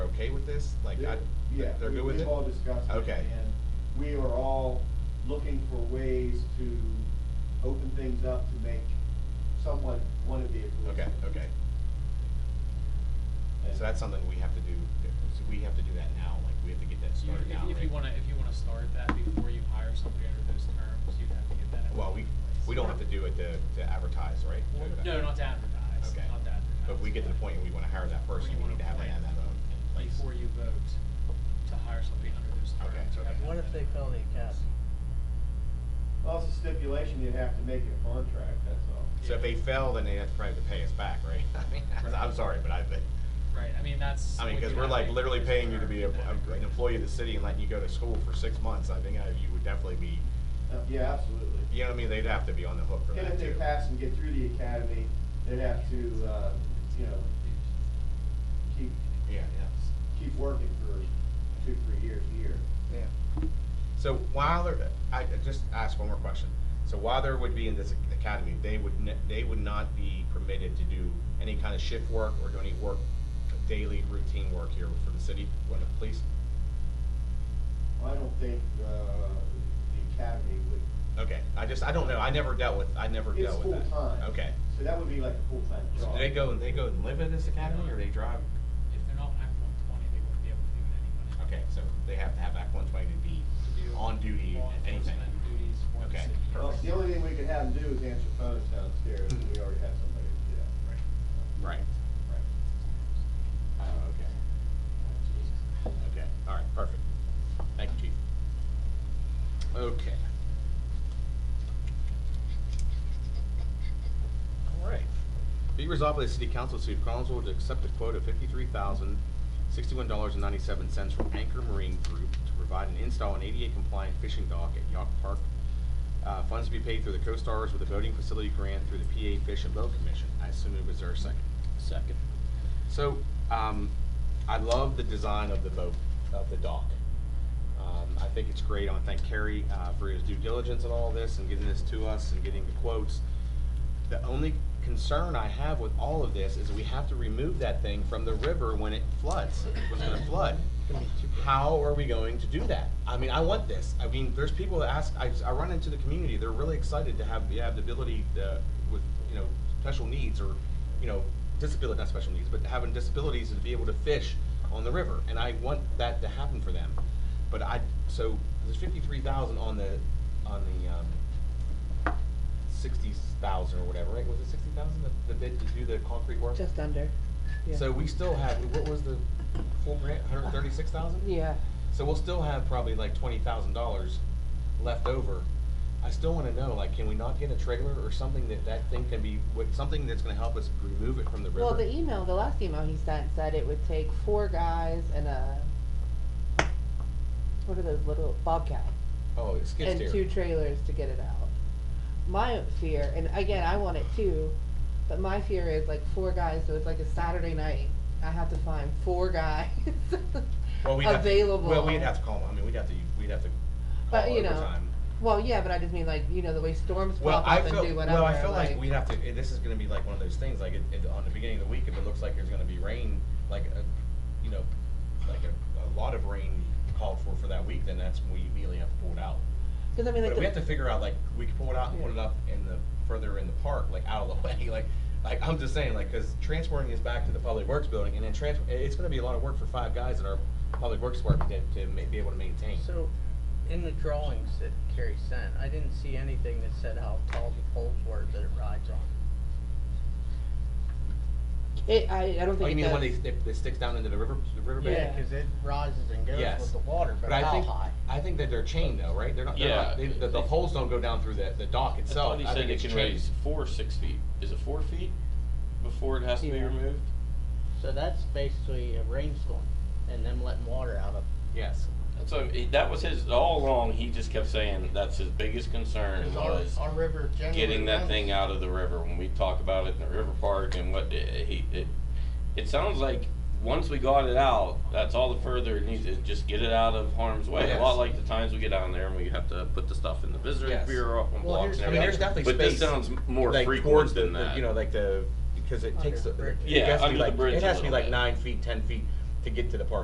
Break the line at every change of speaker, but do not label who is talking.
this? Like, I,
Yeah,
they're
we-
good with it?
We've all discussed it.
Okay.
And we are all looking for ways to open things up to make somewhat one of the.
Okay, okay. So that's something we have to do, so we have to do that now, like, we have to get that
So you-
started now,
if, if you
right?
wanna, if you wanna start that before you hire somebody under those terms, you'd have to get that. in
Well, we,
place.
we don't have to do it to, to advertise, right?
Well, No, not to advertise,
Okay.
not to advertise.
But we get to the point where we wanna hire that person, we need to have that, that in place.
Before you vote to hire somebody under those
Okay,
terms. you have
okay.
to
What
have that
if they
in
call the
place.
accountant?
Also stipulation, you'd have to make it a contract, that's all.
So if they fail, then they have to probably have to pay us back, right? I mean,
Right.
I'm sorry, but I, think-
Right, I mean, that's.
I mean,
what
cause
you
we're
have
like
in
literally
place
paying you to be a,
for that.
a- an employee of the city and letting you go to school for six months, I think uh, you would definitely be,
Uh, Yeah, absolutely.
you know what I mean, they'd have to be on the hook for
And
that
if
too.
they pass and get through the academy, they'd have to, uh, you know, keep,
Yeah, yeah.
keep working for two, three years a year.
Yeah. So while there, I I just ask one more question. So while there would be in this academy, they would, ne- they would not be permitted to do any kind of shift work or do any work, daily routine work here for the city, or the police?
I don't think, uh, the academy would,
Okay, I just, I don't know, I never dealt with, I never
it's
dealt with that.
full-time.
Okay.
so that would be like a full-time
So
job.
do they go, they go and live at this academy or they drive?
If they're not Act one twenty, they wouldn't be able to do it anyway.
Okay, so they have to have Act one twenty to be
To do
on duty,
law
anything.
enforcement Duties for the
Okay,
city.
Well, the only thing we could have them do is answer phones downstairs, and we already have somebody to do that.
Right. Oh, okay. Oh, Okay, all right, perfect. Thank you, chief. Okay. All right. Be resolved by the City Council of the City of Collinsville to accept a quote of fifty-three thousand, sixty-one dollars and ninety-seven cents from Anchor Marine Group to provide and install an ADA compliant fishing dock at Yawk Park. Uh, funds to be paid through the co-stars with a voting facility grant through the PA Fish and Boat Commission. I assume it was there a second.
Second.
So, um, I love the design of the boat, of the dock. Um, I think it's great. I want to thank Kerry, uh, for his due diligence in all this and getting this to us and getting the quotes. The only concern I have with all of this is we have to remove that thing from the river when it floods, when it's gonna flood. How are we going to do that? I mean, I want this. I mean, there's people that ask, I, I run into the community, they're really excited to have, have the ability, uh, with, you know, special needs or, you know, disability, not special needs, but having disabilities to be able to fish on the river, and I want that to happen for them. But I, so, there's fifty-three thousand on the, on the, um, sixty thousand or whatever, right? Was it sixty thousand that the bid to do the concrete work?
Just under, yeah.
So we still have, what was the full grant, hundred thirty-six thousand?
Yeah,
So we'll still have probably like twenty thousand dollars left over. I still wanna know, like, can we not get a trailer or something that that thing can be, with, something that's gonna help us remove it from the river?
Well, the email, the last email he sent said it would take four guys and a, what are those little, Bobcat,
Oh, it skid
and
steer.
two trailers to get it out. My fear, and again, I want it too, but my fear is like four guys, so it's like a Saturday night, I have to find four guys
Well, we'd have to-
available.
Well, we'd have to call them, I mean, we'd have to, we'd have to
But,
call
you know,
overtime.
Well, yeah, but I just mean like, you know, the way storms
Well,
pop
I
up and
feel,
do whatever,
well, I feel like
like,
we'd have to, eh, this is gonna be like one of those things, like, it, it, on the beginning of the week, if it looks like there's gonna be rain, like, a, you know, like a, a lot of rain called for for that week, then that's when we immediately have to pull it out.
cause I mean like
But
the-
we have to figure out, like, we can pull it out and put it up in the, further in the park, like, out of the way, like, like, I'm just saying, like, cause transporting is back to the public works building, and then trans, eh, it's gonna be a lot of work for five guys in our public works department to, to ma- be able to maintain.
so in the drawings that Carrie sent, I didn't see anything that said how tall the poles were that it rides on.
It, I, I don't think it does.
Oh, you mean the one that, that- that sticks down into the river, the riverbed?
Yeah, cause it rises and goes
Yes.
with the water, but
But I
how
think,
high?
I think that they're chained though, right? They're not, they're not,
Yeah.
they- the, the poles don't go down through the, the dock
I
itself.
thought he
I
said
think
it
it's
can
chained.
raise four or six feet. Is it four feet before it has to be
Yeah.
removed?
So that's basically a rainstorm and them letting water out of.
Yes.
That's what, he- that was his, all along, he just kept saying that's his biggest concern was
Our, our river generally.
getting that
runs-
thing out of the river. When we talk about it in the river park and what, eh, he, it, it sounds like once we got it out, that's all the further it needs, is just get it out of harm's way. A
Yes.
lot like the times we get down there and we have to put the stuff in the visitor
Yes.
bureau up on
Well, here's-
blocks and
I mean, there's
everything.
definitely
But this
space,
sounds more
Like,
frequent
towards the-
than
the-
that.
You know, like the, because it takes,
Under
the-
the bridge.
it
Yeah,
has to be
under the
like,
bridge
it
a
has to be
little
like
bit.
nine feet, ten feet to get to the park